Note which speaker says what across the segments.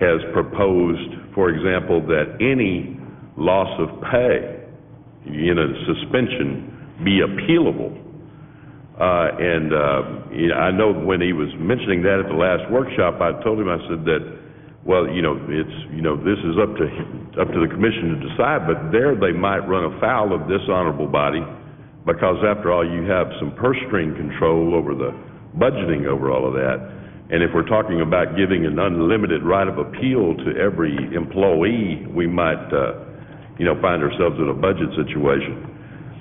Speaker 1: has proposed, for example, that any loss of pay in a suspension be appealable. Uh, And uh, you know, I know when he was mentioning that at the last workshop, I told him, I said that, well, you know, it's, you know, this is up to, up to the commission to decide, but there they might run afoul of this honorable body, because after all, you have some purse string control over the budgeting over all of that. And if we're talking about giving an unlimited right of appeal to every employee, we might, uh, you know, find ourselves in a budget situation.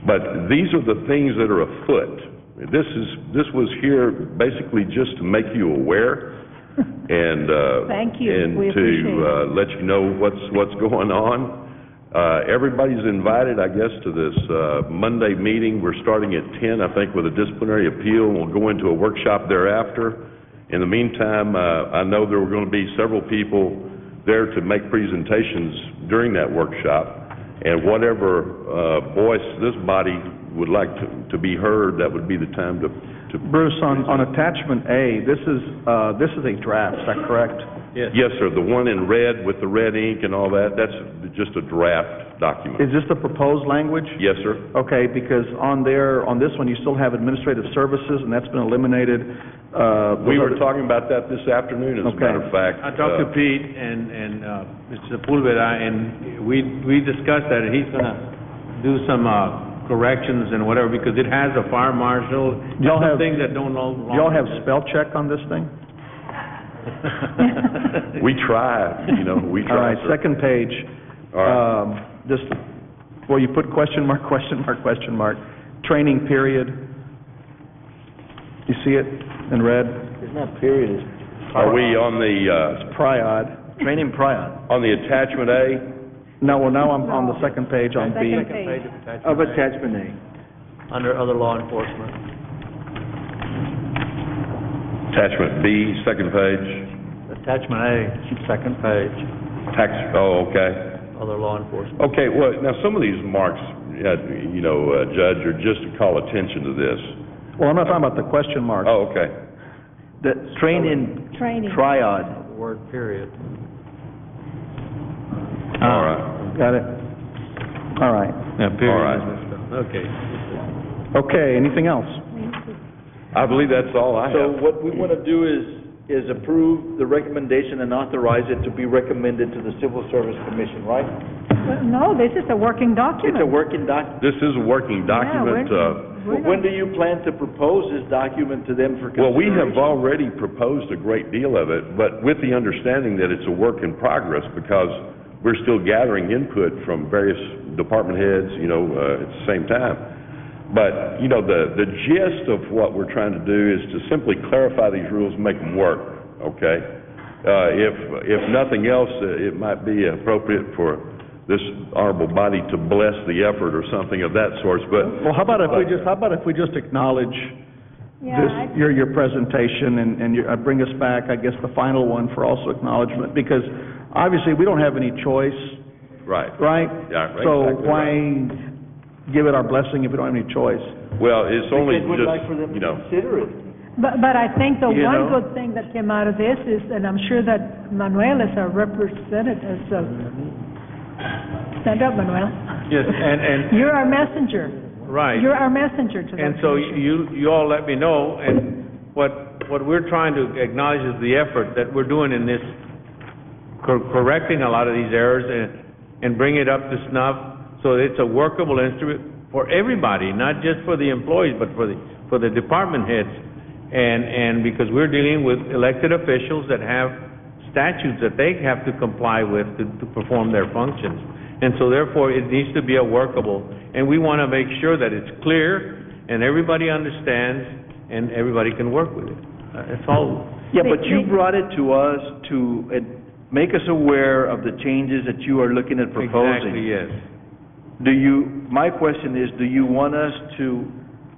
Speaker 1: But these are the things that are afoot. This is, this was here basically just to make you aware and, uh...
Speaker 2: Thank you.
Speaker 1: and
Speaker 2: We
Speaker 1: to,
Speaker 2: appreciate it.
Speaker 1: uh, let you know what's, what's going on. Uh, everybody's invited, I guess, to this, uh, Monday meeting. We're starting at ten, I think, with a disciplinary appeal. We'll go into a workshop thereafter. In the meantime, uh, I know there were gonna be several people there to make presentations during that workshop. And whatever, uh, voice this body would like to, to be heard, that would be the time to, to...
Speaker 3: Bruce, on, on attachment A, this is, uh, this is a draft, is that correct?
Speaker 1: Yes, sir, the one in red with the red ink and all that, that's just a draft document.
Speaker 3: Is this the proposed language?
Speaker 1: Yes, sir?
Speaker 3: Okay, because on there, on this one, you still have administrative services, and that's been eliminated. Uh,
Speaker 1: We were
Speaker 3: those
Speaker 1: talking about that this afternoon, as a matter of fact.
Speaker 4: I talked to
Speaker 1: Uh,
Speaker 4: Pete and, and, uh, Mr. Pulvera, and we, we discussed that, he's gonna do some, uh, corrections and whatever, because it has a fire marshal,
Speaker 3: Y'all have-
Speaker 4: some things that don't all...
Speaker 3: other- Y'all have spell check on this thing?
Speaker 1: Uh, We try, you know, we
Speaker 3: All
Speaker 1: try,
Speaker 3: right,
Speaker 1: sir.
Speaker 3: second page.
Speaker 1: All right.
Speaker 3: Um, Just, well, you put question mark, question mark, question mark, training period. You see it in red?
Speaker 5: It's not period, it's
Speaker 1: Are we on the,
Speaker 3: Priod.
Speaker 5: training prior.
Speaker 1: uh, on the attachment A?
Speaker 3: No, well, now I'm on the second page on B.
Speaker 2: Second page.
Speaker 5: Of attachment A. Under other law enforcement.
Speaker 1: Attachment B, second page,
Speaker 5: Attachment A, second page,
Speaker 1: tax, oh, okay.
Speaker 5: other law enforcement.
Speaker 1: Okay, well, now, some of these marks, uh, you know, uh, Judge, are just to call attention to this.
Speaker 3: Well, I'm not talking about the question mark.
Speaker 1: Oh, okay.
Speaker 5: The training
Speaker 2: Training.
Speaker 5: triad. Word period.
Speaker 1: All right.
Speaker 3: Got it? All right.
Speaker 1: All right.
Speaker 4: Okay.
Speaker 3: Okay, anything else?
Speaker 1: I believe that's all I
Speaker 6: So
Speaker 1: have.
Speaker 6: what we want to do is, is approve the recommendation and authorize it to be recommended to the Civil Service Commission, right?
Speaker 2: Well, No, this is a working
Speaker 6: It's a
Speaker 2: document.
Speaker 6: working doc,
Speaker 1: This is a working document.
Speaker 2: we're-
Speaker 1: uh,
Speaker 2: We're
Speaker 6: but when
Speaker 2: not-
Speaker 6: do you plan to propose this document to them for
Speaker 1: Well, we
Speaker 6: consideration?
Speaker 1: have already proposed a great deal of it, but with the understanding that it's a work in progress because we're still gathering input from various department heads, you know, uh, at the same time. But, you know, the, the gist of what we're trying to do is to simply clarify these rules, make them work, okay? Uh, If, if nothing else, uh, it might be appropriate for this honorable body to bless the effort or something of that sort, but
Speaker 3: Well, how about if we just, how about if we just acknowledge
Speaker 2: Yeah,
Speaker 3: this,
Speaker 2: I-
Speaker 3: your, your presentation and, and your- uh, bring us back, I guess, the final one for also acknowledgement? Because obviously, we don't have any choice,
Speaker 1: Right.
Speaker 3: right?
Speaker 1: Yeah, right,
Speaker 3: So
Speaker 1: exactly
Speaker 3: why give it our blessing if we don't have any choice?
Speaker 1: Well, it's only
Speaker 5: Because we'd like for them
Speaker 1: just, you
Speaker 5: to
Speaker 1: know,
Speaker 5: consider it.
Speaker 2: But, but I think the
Speaker 5: You
Speaker 2: one
Speaker 5: know?
Speaker 2: good thing that came out of this is, and I'm sure that Manuel is our representative, so stand up, Manuel.
Speaker 4: Yes, and, and,
Speaker 2: You're our messenger.
Speaker 4: right.
Speaker 2: You're our messenger to
Speaker 4: And
Speaker 2: them.
Speaker 4: so you, you all let me know, and what, what we're trying to acknowledge is the effort that we're doing in this, cor- correcting a lot of these errors and, and bring it up to snuff, so it's a workable instrument for everybody, not just for the employees, but for the, for the department heads. And, and because we're dealing with elected officials that have statutes that they have to comply with to, to perform their functions. And so therefore, it needs to be a workable, and we want to make sure that it's clear and everybody understands and everybody can work with it. Uh, That's all.
Speaker 6: Yeah, but
Speaker 2: They-
Speaker 6: you
Speaker 2: they-
Speaker 6: brought it to us to uh, make us aware of the changes that you are looking at
Speaker 4: Exactly,
Speaker 6: proposing.
Speaker 4: yes.
Speaker 6: Do you, my question is, do you want us to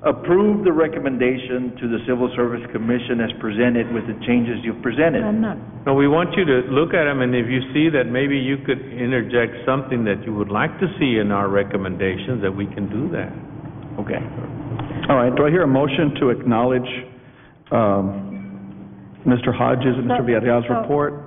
Speaker 6: approve the recommendation to the Civil Service Commission as presented with the changes you've presented?
Speaker 2: I'm not.
Speaker 4: No, we want you to look at them, and if you see that maybe you could interject something that you would like to see in our recommendations, that we can do that.
Speaker 6: Okay.
Speaker 3: All right, do I hear a motion to acknowledge, um, Mr. Hodges and Mr.
Speaker 2: So-
Speaker 3: Villarreal's
Speaker 2: so-
Speaker 3: report?